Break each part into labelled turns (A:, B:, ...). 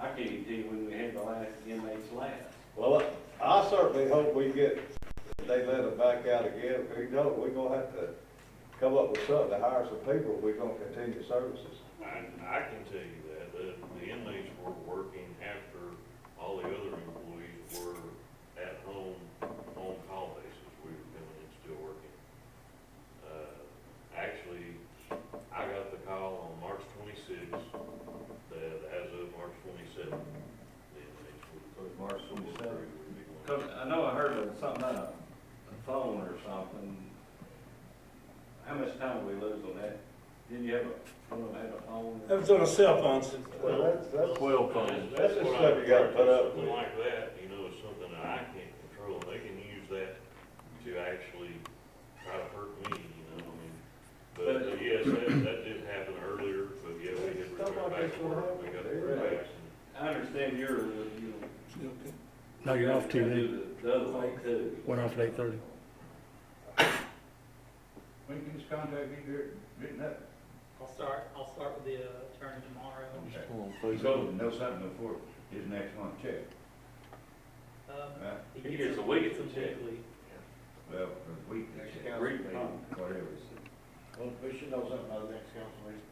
A: guarantee you when we had the last inmates last.
B: Well, I certainly hope we get, they let them back out again, if we don't, we're gonna have to come up with something to hire some people, if we're gonna continue services.
C: I, I can tell you that, the, the inmates were working after all the other employees were at home, on call basis, we were coming and still working. Uh, actually, I got the call on March twenty-sixth, that as of March twenty-seventh, the inmates were.
D: March 27th.
C: would be one.
A: Cause I know I heard of something on a, a phone or something. How much time we lose on that? Didn't you have a, one of them had a phone?
E: That was on a cell phone system.
B: Well, that's, that's,
D: Twelve
C: Well,
D: phones.
B: That's just
C: what
B: stuff
C: I-
B: you gotta put up
C: Something
B: with.
C: like that, you know, is something that I can't control, and they can use that to actually try to hurt me, you know, I mean. But,
A: But-
C: uh, yes, that, that did happen earlier, but yeah, we had
B: Stuff like
C: returned back
B: this
C: to
B: will
C: work,
B: happen.
C: we got
B: They
C: the
B: relax.
C: relax.
A: I understand you're, you know.
F: No, you're off TV.
A: do The the other thing too.
F: Went off at eight thirty.
D: We can just contact you here, written up.
G: I'll start, I'll start with the uh, attorney tomorrow.
D: Okay.
C: So-
D: Know something before his next month check,
G: Um,
D: right?
A: He gets a week to
G: them
A: check.
G: weekly.
D: Well, for the week they check, whatever.
H: Well, we should know something about the next council meeting.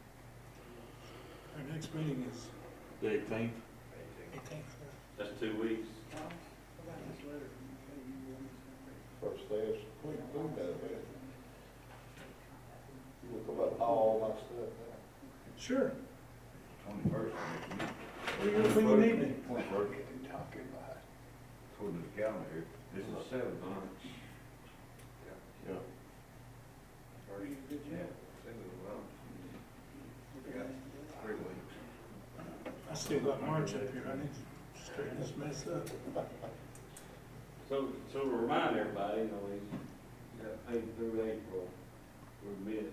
E: Our next meeting is
D: The eighteenth.
E: eighteenth.
A: That's two weeks.
B: first steps, we, we got it. Look about all my stuff.
E: Sure.
D: Twenty-first.
E: What are you doing when you need me?
D: Twenty-first,
B: Talking about.
D: according to the calendar here, this is seven.
B: Yeah.
E: I still got March up here. I need to straighten this mess up.
A: So, so to remind everybody, you know, he's, you got paid through April, we're mid,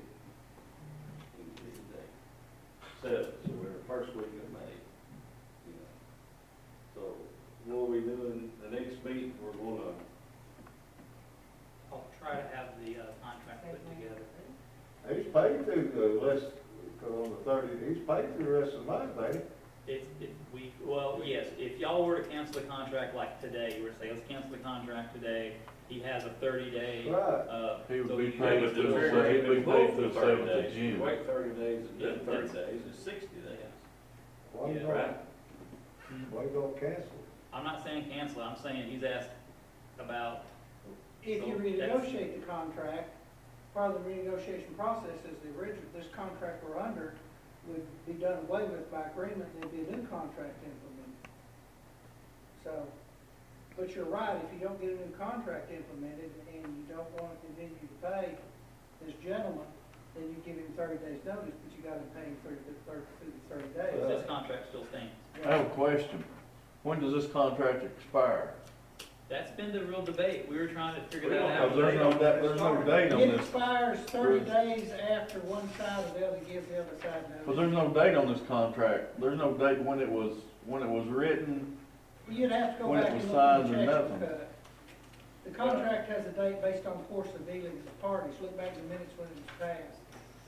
A: in this day. So, so we're the first week of May, you know. So, what are we doing, the next meeting, we're gonna,
G: I'll try to have the uh, contract put together.
B: He's paid through the last, on the thirty, he's paid through the rest of mine, ain't he?
G: If, if we, well, yes, if y'all were to cancel the contract like today, you were to say, let's cancel the contract today, he has a thirty day,
B: Right.
G: uh.
D: He would
G: so
D: be
G: you-
D: paid
C: with
D: through
C: the
D: the
C: very-
D: seventh, he'd be paid through the
A: Thirty
D: seventh of
A: days.
D: June.
A: Wait thirty days, and then
G: Yeah,
A: thirty
G: that's-
A: days, it's sixty days,
B: Why
G: Yeah,
B: don't-
A: right?
B: Why don't cancel?
G: I'm not saying cancel, I'm saying he's asked about,
I: If you
G: So that's-
I: renegotiate the contract, part of the renegotiation process is the original, this contract we're under would be done away with by agreement, and there'd be a new contract implemented. So, but you're right, if you don't get a new contract implemented and you don't want to continue to pay this gentleman, then you give him thirty days notice, but you gotta pay him thirty, thirty, thirty
G: does
I: days.
G: this contract still stands?
D: I have a question. When does this contract expire?
G: That's been the real debate, we were trying to figure
C: We
G: that
C: don't
G: out.
C: have
D: There's no, there's no date on
I: It
D: this,
I: expires thirty days after one side of the other gives the other side notice.
D: because there's no date on this contract. There's no date when it was, when it was written,
I: You'd have to go
D: When it
I: back
D: was
I: and look at
D: signed
I: the
D: or
I: checks
D: nothing.
I: we cut. The contract has a date based on course of dealing with the parties, look back to the minutes when it was passed.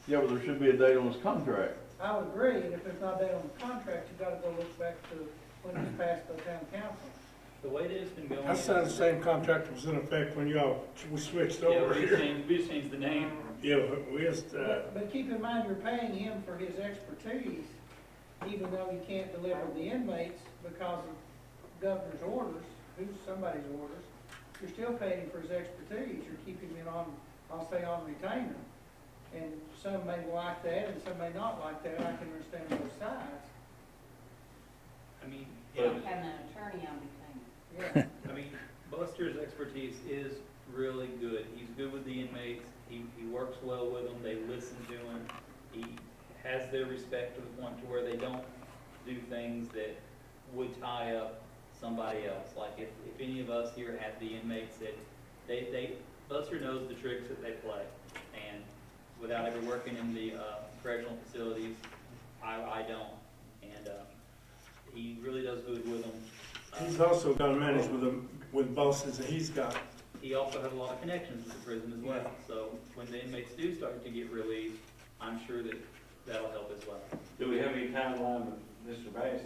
D: Yeah, but there should be a date on his contract.
I: I would agree, and if there's not a date on the contract, you gotta go look back to when it was passed by town council.
G: The way that it's been going.
E: I signed the
G: is-
E: same contract that was in effect when y'all, we switched
G: Yeah,
E: over
G: we just
E: here.
G: changed, we just changed the name.
E: Yeah, but we just, uh,
I: But, but keep in mind, you're paying him for his expertise, even though you can't deliver the inmates because of governor's orders, who's somebody's orders. You're still paying him for his expertise, you're keeping him on, I'll say on retainer. And some may like that and some may not like that, I can understand both sides.
G: I mean,
A: But-
G: yeah,
J: Having an attorney on retainer.
I: Yeah,
G: I mean, Buster's expertise is really good. He's good with the inmates. He, he works well with them. They listen to him. He has their respect to the point to where they don't do things that would tie up somebody else. Like if, if any of us here had the inmates that, they, they, Buster knows the tricks that they play. And without ever working in the uh, correctional facilities, I, I don't. And, uh, he really does good with them. Uh,
E: he's also got to manage with the, with bosses that he's got.
G: he also had a lot of connections with the prison as well. So when the inmates do start to get released, I'm sure that that'll help as well.
A: Do we have any timeline with Mr. Bass